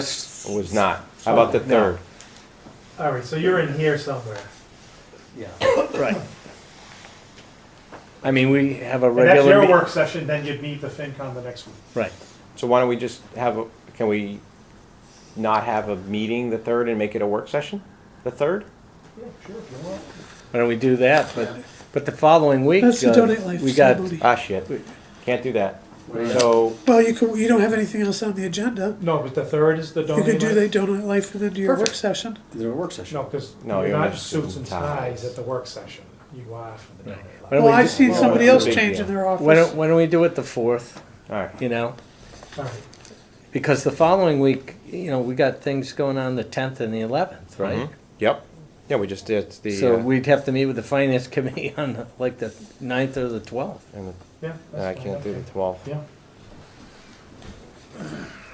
Just, It was not. How about the third? All right, so you're in here somewhere. yeah, right. I mean, we have a And that's regular. your meet- work session, then you'd meet the FinCon the next week. Right, So why don't we just have, a? can we not have a meeting the third and make it a work session? The third? why don't we do that, but, but the following week. That's the uh, donate life We got, facility. Ah, shit. Can't do that. So, Well, you could, you don't have anything else on the agenda. No, but the third is the You donor. could do the donut life and then do your work Perfect. session. There a work session. No, because No, you're you're not not suits and suit and ties. ties at the work session. You are for the Right. Why donor life. don't Well, we I've just- seen somebody it's else a big change deal. in their Why don't, office. why don't we do it the fourth, all right. you know? All right. Because the following week, you know, we got things going on the tenth and the eleventh, right? Mhm. Yep. Yeah, we just did the, So uh, we'd have to meet with the finance committee on the- like the ninth or the twelfth. and the- Yeah. and that's I fine, can't do the okay. twelfth. Yeah.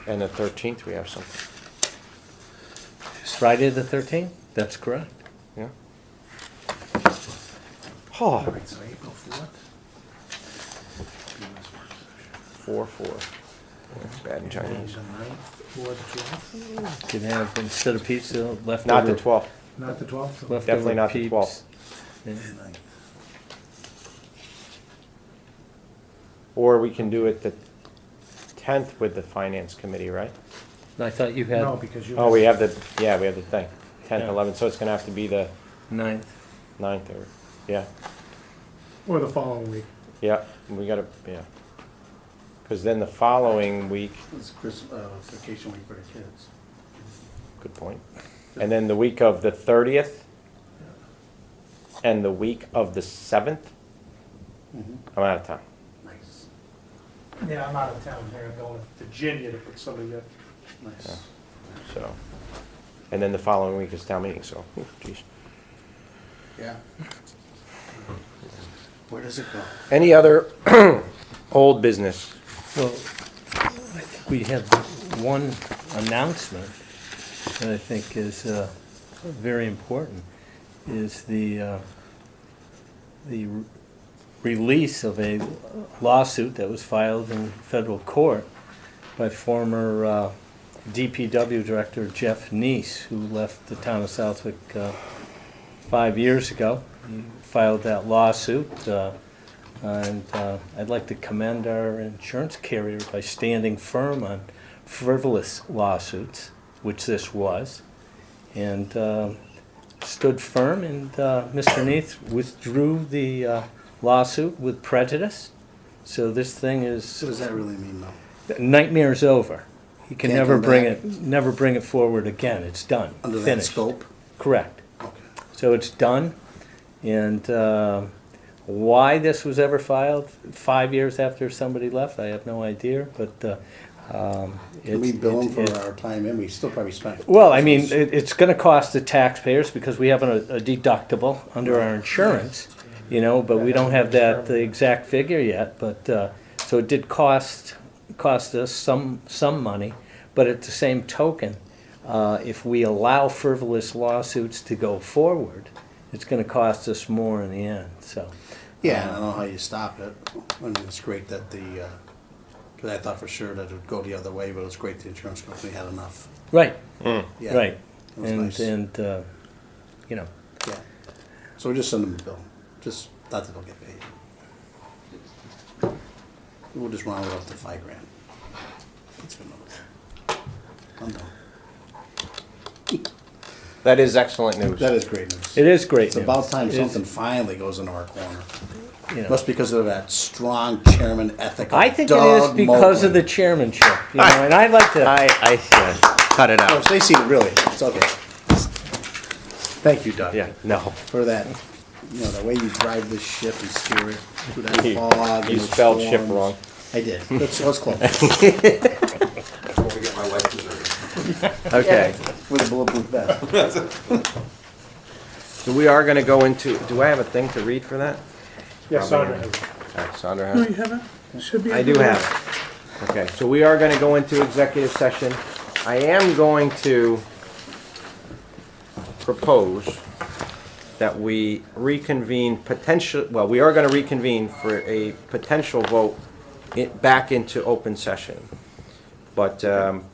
And the thirteenth, we have something. Friday the thirteenth, that's correct. Yeah. Oh, Right, so April fourth. four, four. Bad in Chinese. or the twelfth? Can have instead of pizza, leftover. Not the twelfth. Not the twelfth? leftover Definitely not the peeps. 12th. Yeah. Or we can do it the tenth with the finance committee, right? I thought you No, had because you. Oh, we have the, yeah, we have the thing, tenth, Yeah. eleventh, so it's gonna have to be the ninth. ninth or, yeah, Or the following week. yeah, we gotta, yeah. Cause then the following week, It's Christmas, uh, vacation week for the kids. good point, and then the week of the thirtieth and the week of the seventh, Mm-hmm. I'm out of time. Nice, Yeah, I'm out of town here. I'm going to Virginia to put somebody up. nice. so. And then the following week is town meeting, so, ooh, geez. Yeah. Where does it go? Any other old business? Well, I think we have one announcement that I think is uh, very important, is the, uh, the re- release of a lawsuit that was filed in federal court by former uh, DPW Director Jeff Neese, who left the town of Southwick uh, five years ago. He filed that lawsuit. uh, and uh, I'd like to commend our insurance carrier by standing firm on frivolous lawsuits, which this was, and um, stood firm. And uh, Mr. Neath withdrew the uh, lawsuit with prejudice. So this thing What does is that really mean though? nightmare's over. He can Can't never come bring back. it, never bring it forward again. It's done. Under that Finished. scope? Correct. Okay. So it's done, and uh, why this was ever filed five years after somebody left, I have no idea, but uh, um, Can we it's- bill them it's- for it's- our time and we still probably spent? Well, I mean, it- it's gonna cost the taxpayers because we have a a deductible under our insurance, you know, but we don't have that, the exact figure yet, but, uh, so it did cost, cost us some, some money, but at the same token, uh, if we allow frivolous lawsuits to go forward, it's gonna cost us more in the end, so. Yeah, I don't know how you stop it. I mean, it's great that the, uh 'cause cause I thought for sure that it would go the other way, but it's great the insurance company had enough. Right, Yeah, right, that was and, nice. and, uh, you know, Yeah. So we just send them a bill, just, not that they'll get paid. We'll just round it up to five grand. That's good enough. I'm done. That is excellent news. That is great news. it is great It's news. about time It is, something finally goes into our corner. you know. Must be because of that strong chairman ethic. of I think it is Doug because of the Moakland. chairmanship, you know, and I like to. I, I, yeah, cut it Oh, out. if they see it, really, it's okay. Thank you, Doug. Yeah, no. For that, you know, the way you drive this ship and steer it through that You- fog. and you those spelled ship storms. wrong. I did. That's, that's close. Okay. With a bulletproof vest. So we are gonna go into, do I have a thing to read for that? Yeah, Probably Sandra. not. All right, Sandra No, has. you haven't. Should be. I do have. it. Okay, so we are gonna go into executive session. I am going to propose that we reconvene potential, well, we are gonna reconvene for a potential vote it, back into open session. But, um,